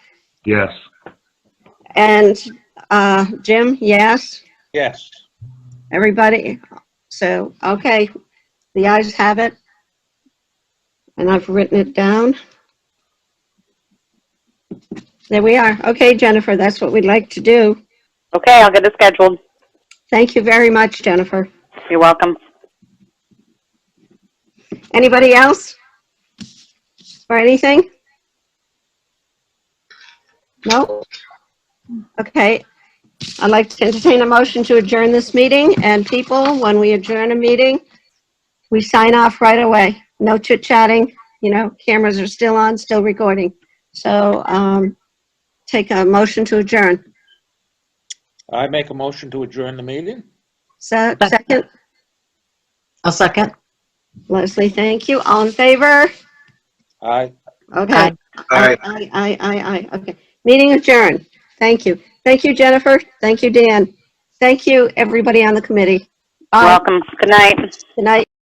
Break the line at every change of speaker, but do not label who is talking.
Yes.
And uh, Jim, yes,
Yes.
everybody? So, okay, the ayes have it. And I've written it down. There we are. Okay, Jennifer, that's what we'd like to do.
Okay, I'll get it scheduled.
Thank you very much, Jennifer.
You're welcome.
Anybody else? Or anything? No? Okay. I'd like to entertain a motion to adjourn this meeting, and people, when we adjourn a meeting, we sign off right away. No chit-chatting, you know, cameras are still on, still recording. So, um, take a motion to adjourn.
I make a motion to adjourn the meeting?
So, second,
I'll second.
Leslie, thank you. All in favor?
Aye.
Okay.
Aye.
All right.
Aye, aye, aye, aye. Okay. Meeting adjourned. Thank you. Thank you, Jennifer. Thank you, Dan. Thank you, everybody on the committee. Bye.
Welcome. Good night.
Good night.